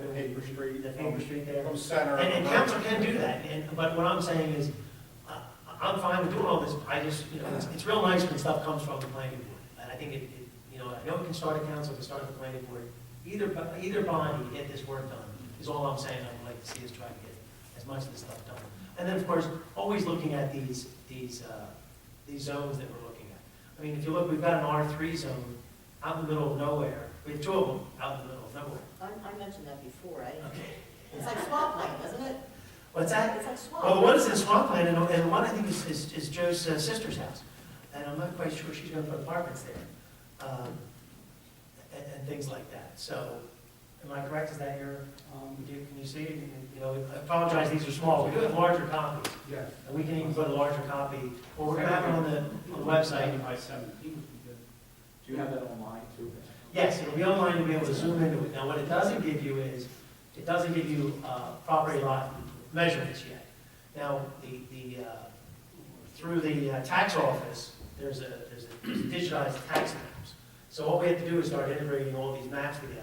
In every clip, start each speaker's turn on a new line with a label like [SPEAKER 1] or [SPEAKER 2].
[SPEAKER 1] the paper street.
[SPEAKER 2] The paper street there.
[SPEAKER 1] From center.
[SPEAKER 2] And, and council can do that, and, but what I'm saying is, I, I'm fine with doing all this, I just, you know, it's, it's real nice when stuff comes from the planning board. And I think it, it, you know, I know we can start at council, we can start at the planning board, either, bo- either body to get this work done, is all I'm saying, I would like to see us try to get as much of this stuff done. And then, of course, always looking at these, these, uh, these zones that we're looking at. I mean, if you look, we've got an R three zone out in the middle of nowhere, we have two of them out in the middle of nowhere.
[SPEAKER 3] I, I mentioned that before, right?
[SPEAKER 2] Okay,
[SPEAKER 3] It's like swampland, isn't it?
[SPEAKER 2] what's that?
[SPEAKER 3] It's like swamp.
[SPEAKER 2] Well, the one is in swampland, and, and one I think is, is, is Joe's uh, sister's house. And I'm not quite sure she's gonna put apartments there, um, and, and things like that. So, am I correct? Is that your, um, do, can you see? it? You know, I apologize, these are small. We do have larger copies,
[SPEAKER 1] Yes.
[SPEAKER 2] and we can even put a larger copy, or we're gonna have it on the, on the website.
[SPEAKER 4] By seventeen would be good. Do you have that online too?
[SPEAKER 2] Yes, it'll be online, you'll be able to zoom into it. Now, what it doesn't give you is, it doesn't give you uh, property lot measurements yet. Now, the, the, uh, through the uh, tax office, there's a, there's a digitized tax maps. So what we have to do is start integrating all these maps together,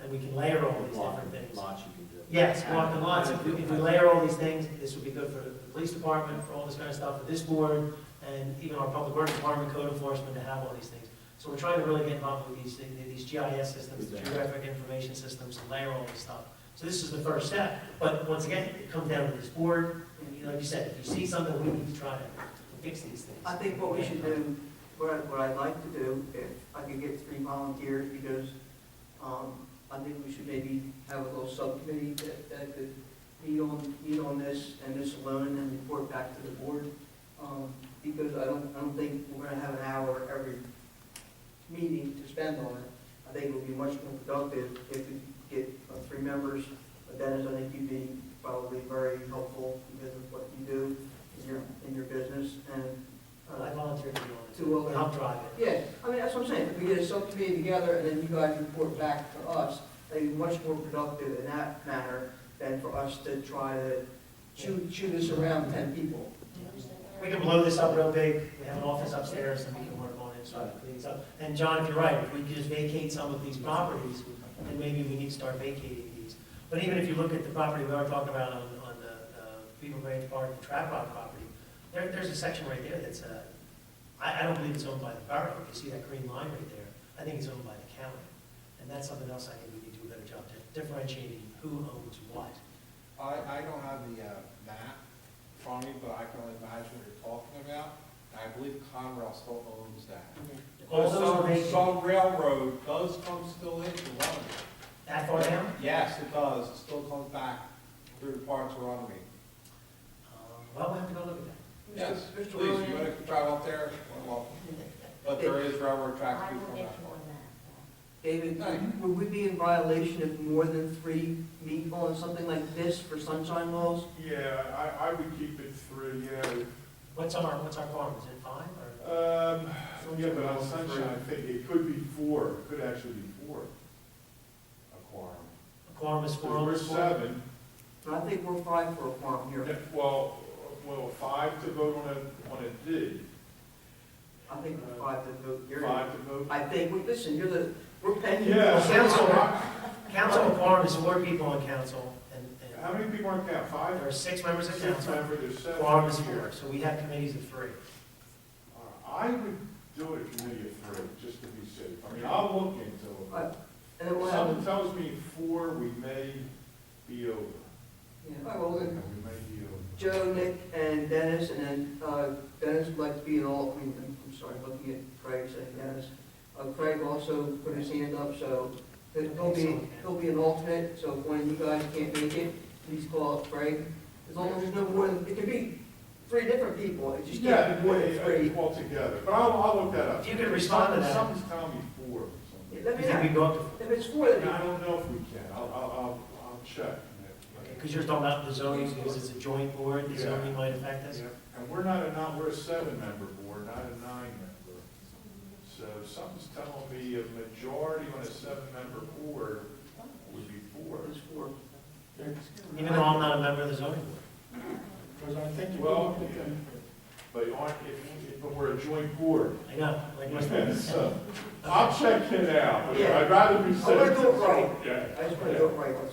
[SPEAKER 2] and we can layer all these different things.
[SPEAKER 4] Lots you can do.
[SPEAKER 2] Yes, block and lots, if we if we layer all these things, this would be good for the police department, for all this kind of stuff, for this board, and even our public works department, code enforcement, to have all these things. So we're trying to really get involved with these, thing- these GIS systems, the geographic information systems, and layer all this stuff. So this is the first step, but once again, it comes down to this board, and you- like you said, if you see something, we need to try to fix these things.
[SPEAKER 5] I think what we should do, what I, what I'd like to do, if I could get three volunteers, because, um, I think we should maybe have a little subcommittee that, that could meet on, meet on this and this alone and report back to the board. Um, because I don't, I don't think we're gonna have an hour every meeting to spend on it. I think it would be much more productive if we get uh, three members. But that is, I think you'd be probably very helpful because of what you do in your, in your business and. uh,
[SPEAKER 2] I volunteer to do all this,
[SPEAKER 5] To uh, all that.
[SPEAKER 2] I'll drive it.
[SPEAKER 5] yeah, I mean, that's what I'm saying, if we get a subcommittee together and then you guys report back to us, that'd be much more productive in that manner than for us to try to chew, chew this around ten people.
[SPEAKER 3] Do you understand that?
[SPEAKER 2] We can blow this up real big, we have an office upstairs, and we can work on it, so it cleans up. And John, if you're right, if we could just vacate some of these properties, then maybe we need to start vacating these. But even if you look at the property we are talking about on, on the, uh, Beaver Branch Park, the Trap Rock property, there, there's a section right there that's, uh, I, I don't believe it's owned by the borough, if you see that green line right there, I think it's owned by the county. And that's something else I think we need to do a better job to differentiating who owns what.
[SPEAKER 1] I, I don't have the, uh, map in front of me, but I can only imagine what you're talking about. I believe Conrail still owns that.
[SPEAKER 2] All those are
[SPEAKER 1] Also,
[SPEAKER 2] vacant,
[SPEAKER 1] some railroad does come still into Runaby.
[SPEAKER 2] that far down?
[SPEAKER 1] Yes, it does, it still comes back through parts of Runaby.
[SPEAKER 2] Um, Well, we'll have to go look at that.
[SPEAKER 1] Yes,
[SPEAKER 5] Mr.
[SPEAKER 1] please, you
[SPEAKER 5] Ryan?
[SPEAKER 1] wanna drive up there, well, but there is railroad tracks
[SPEAKER 3] I
[SPEAKER 1] through
[SPEAKER 3] will
[SPEAKER 1] from
[SPEAKER 3] get
[SPEAKER 1] that
[SPEAKER 3] you
[SPEAKER 1] part.
[SPEAKER 3] on
[SPEAKER 5] David, would- would we be in violation if more than three meet on something like this for sunshine laws?
[SPEAKER 6] Yeah, I, I would keep it three, yeah.
[SPEAKER 2] What's our, what's our quorum, is it five or?
[SPEAKER 6] Um, yeah, but on sunshine, I think it could be four, it could actually be four. A quorum.
[SPEAKER 2] A quorum is four
[SPEAKER 6] So
[SPEAKER 2] on
[SPEAKER 6] we're
[SPEAKER 2] this board?
[SPEAKER 6] seven,
[SPEAKER 5] And I think we're five for a quorum here.
[SPEAKER 6] if- well, well, five to vote on a, on a D,
[SPEAKER 5] I think we're five to vote here.
[SPEAKER 6] five to vote.
[SPEAKER 5] I think, well, listen, you're the, we're paying. you.
[SPEAKER 6] Yeah.
[SPEAKER 2] Council, council quorum is four people on council, and,
[SPEAKER 6] How
[SPEAKER 2] and
[SPEAKER 6] many people are there,
[SPEAKER 2] there
[SPEAKER 6] five?
[SPEAKER 2] are six members of
[SPEAKER 6] Six
[SPEAKER 2] council.
[SPEAKER 6] members, there's seven.
[SPEAKER 2] Quorum is
[SPEAKER 6] here.
[SPEAKER 2] four, so we have committees of three.
[SPEAKER 6] Uh, I would do it a committee of three, just to be safe. I mean, I'll look into it.
[SPEAKER 5] Right. And then we'll have,
[SPEAKER 6] Someone tells me four, we may be over.
[SPEAKER 5] yeah, all right, well,
[SPEAKER 6] We
[SPEAKER 5] then
[SPEAKER 6] may be over.
[SPEAKER 5] Joe, Nick, and Dennis, and then uh, Dennis would like to be an all, I mean, I'm- I'm sorry, looking at Craig, saying Dennis. Uh, Craig also put his hand up, so he'll be, he'll be an alternate, so if one of you guys can't make it, please call up Craig. As long as there's no more than, it could be three different people, it just
[SPEAKER 6] Yeah,
[SPEAKER 5] can't be more than
[SPEAKER 6] it-
[SPEAKER 5] three.
[SPEAKER 6] it- altogether, but I'll, I'll look that up.
[SPEAKER 2] If you could respond to that.
[SPEAKER 6] Someone's telling me four or something.
[SPEAKER 5] Let
[SPEAKER 2] You
[SPEAKER 5] me
[SPEAKER 2] think we
[SPEAKER 5] know,
[SPEAKER 2] go up to,
[SPEAKER 5] if it's four,
[SPEAKER 6] I
[SPEAKER 5] then
[SPEAKER 6] don't know if we can, I'll, I'll, I'll, I'll check.
[SPEAKER 2] okay, because you're talking about the zoning, because it's a joint board, the
[SPEAKER 6] Yeah.
[SPEAKER 2] zoning might affect us.
[SPEAKER 6] Yeah, And we're not a, not, we're a seven-member board, not a nine-member. So something's telling me a majority on a seven-member board would be four.
[SPEAKER 5] it's four.
[SPEAKER 2] Even though I'm not a member of the zoning board.
[SPEAKER 1] Because I think you.
[SPEAKER 6] Well, yeah. But aren't, if, if we're a joint board,
[SPEAKER 2] I know, like, what's that?
[SPEAKER 6] so I'll check it out, but I'd rather
[SPEAKER 5] I
[SPEAKER 6] be
[SPEAKER 5] wanna
[SPEAKER 6] safe.
[SPEAKER 5] do it right,
[SPEAKER 6] Yeah.
[SPEAKER 5] I just wanna do it right.